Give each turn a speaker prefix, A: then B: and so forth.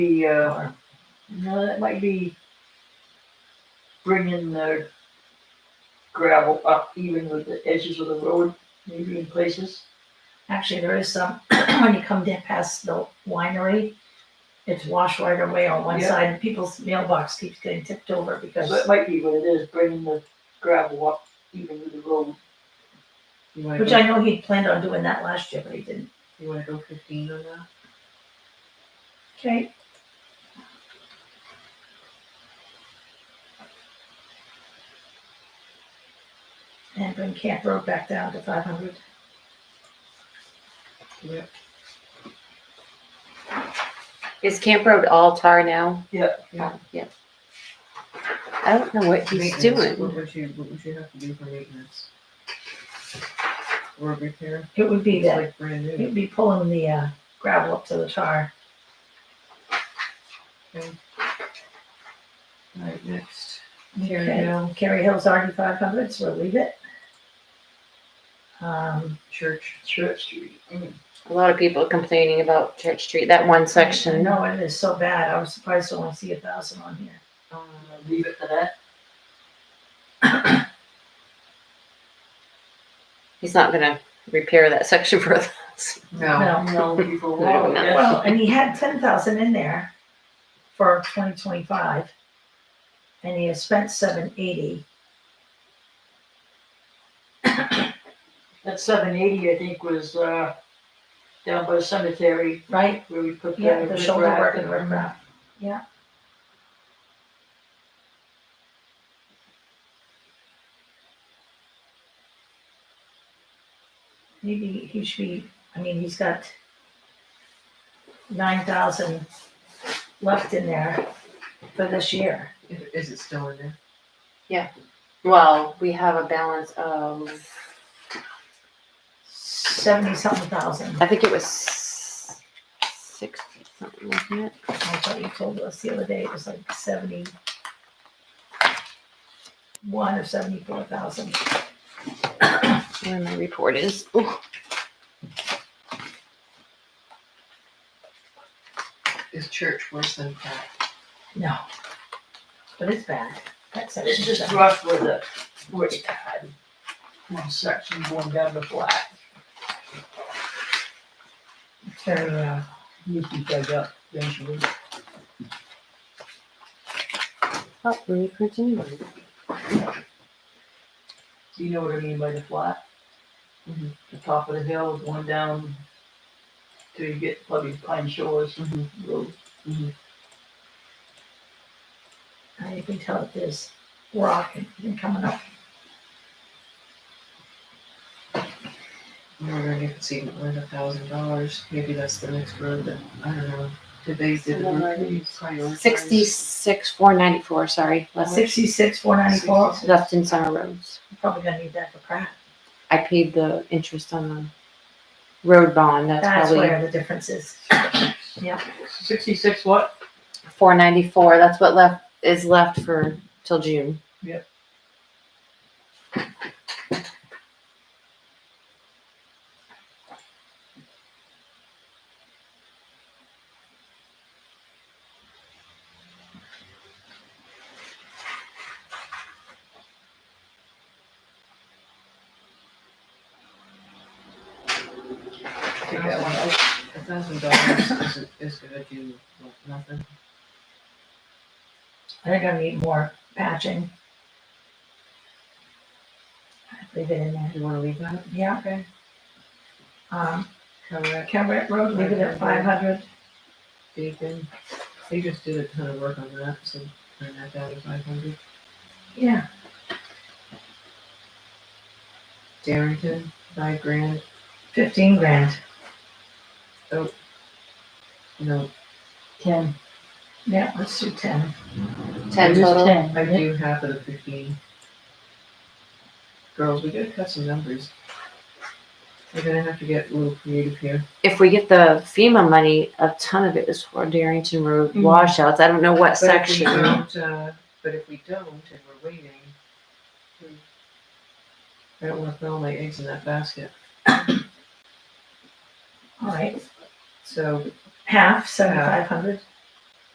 A: be, uh, no, that might be bringing the gravel up even with the edges of the road, maybe in places.
B: Actually, there is some, when you come down past the winery, it's washed right away on one
A: Yeah.
B: side, and people's mailbox keeps getting tipped over because
A: So it might be what it is, bringing the gravel up even with the road.
C: You wanna
B: Which
C: go,
B: I know he planned on doing that last year, but he didn't.
C: you wanna go fifteen on that?
B: Okay. And bring Camp Road back down to five hundred.
D: Is Camp Road all tar now?
A: Yeah.
D: Yeah. I don't know what he's
C: Maintenance, What
D: doing.
C: would you, what would you have to do for maintenance? Road repair,
B: It would be
C: it's
B: that,
C: like brand
B: it
C: new.
B: would be pulling the uh, gravel up to the tar.
C: Alright, next. Carry
B: Okay.
C: Hill
B: Kerry Hill's already five hundred, so we'll leave it. Um,
C: Church,
A: Church Street.
D: A lot of people complaining about Church Street, that one section.
B: No, it is so bad. I was surprised I only see a thousand on here.
A: Uh, leave it to that.
D: He's not gonna repair that section for us.
C: no,
B: No.
A: No, people
D: I
A: will,
D: don't know.
A: yes.
B: Well, and he had ten thousand in there for twenty twenty-five. And he has spent seven eighty.
A: That seven eighty, I think, was, uh, down by the cemetery
B: Right,
A: where we put the.
B: yeah, the shoulder
A: riprap
B: work and riprap. Yeah. Maybe he should be, I mean, he's got nine thousand left in there for this year.
C: is is it still in there?
D: Well, we have a balance of,
B: Seventy something thousand,
D: I think it was sixty something, wasn't it?
B: I thought you told us the other day, it was like seventy one or seventy-four thousand.
D: Where my report is. Ooh,
C: Is church worse than that?
B: No. But it's bad. That's
A: It's just rough with the, where it's had one section going down the flat,
B: very, uh,
A: needs to be dug up eventually.
D: Oh, reprints anyway.
A: Do you know what I mean by the flat?
C: Mhm.
A: The top of the hill going down till you get probably Pine Shores
C: Mhm.
A: Road.
B: I can tell it is rock and- and coming up.
C: I'm wondering if it's even worth a thousand dollars, maybe that's the next road that, I don't know, did they, did the road committee prioritize?
D: Sixty-six, four ninety-four, sorry, less
B: Sixty-six, four ninety-four,
D: Dustin Summer Roads.
B: probably gonna need that for crap.
D: I paid the interest on the road bond, that's
B: That's
D: probably
B: where the difference is.
A: Sixty-six what?
D: four ninety-four, that's what left, is left for, till June.
A: Yep.
C: Take that one out. A thousand dollars is, is gonna do like, nothing.
B: They're gonna need more patching. Leave it in there.
C: You wanna leave that?
B: Yeah.
C: Okay.
B: Um,
C: Correct.
B: Camrec Road, leave it at five hundred.
C: Beacon, they just did a ton of work on that, so turn that down to five hundred.
B: Yeah.
C: Darrington, five grand,
B: Fifteen grand.
C: no,
A: Ten.
B: Yeah, let's do ten.
D: Ten
A: It is
D: total,
A: Ten.
C: I do half of the fifteen. Girls, we gotta cut some numbers. We're gonna have to get a little creative here.
D: if we get the FEMA money, a ton of it is for Darrington Road
A: Mhm.
D: washouts, I don't know what
C: But if we
D: section.
C: don't, uh, but if we don't and we're waiting, we- I don't wanna put all my eggs in that basket,
B: All right,
C: so
B: half, seventy-five hundred.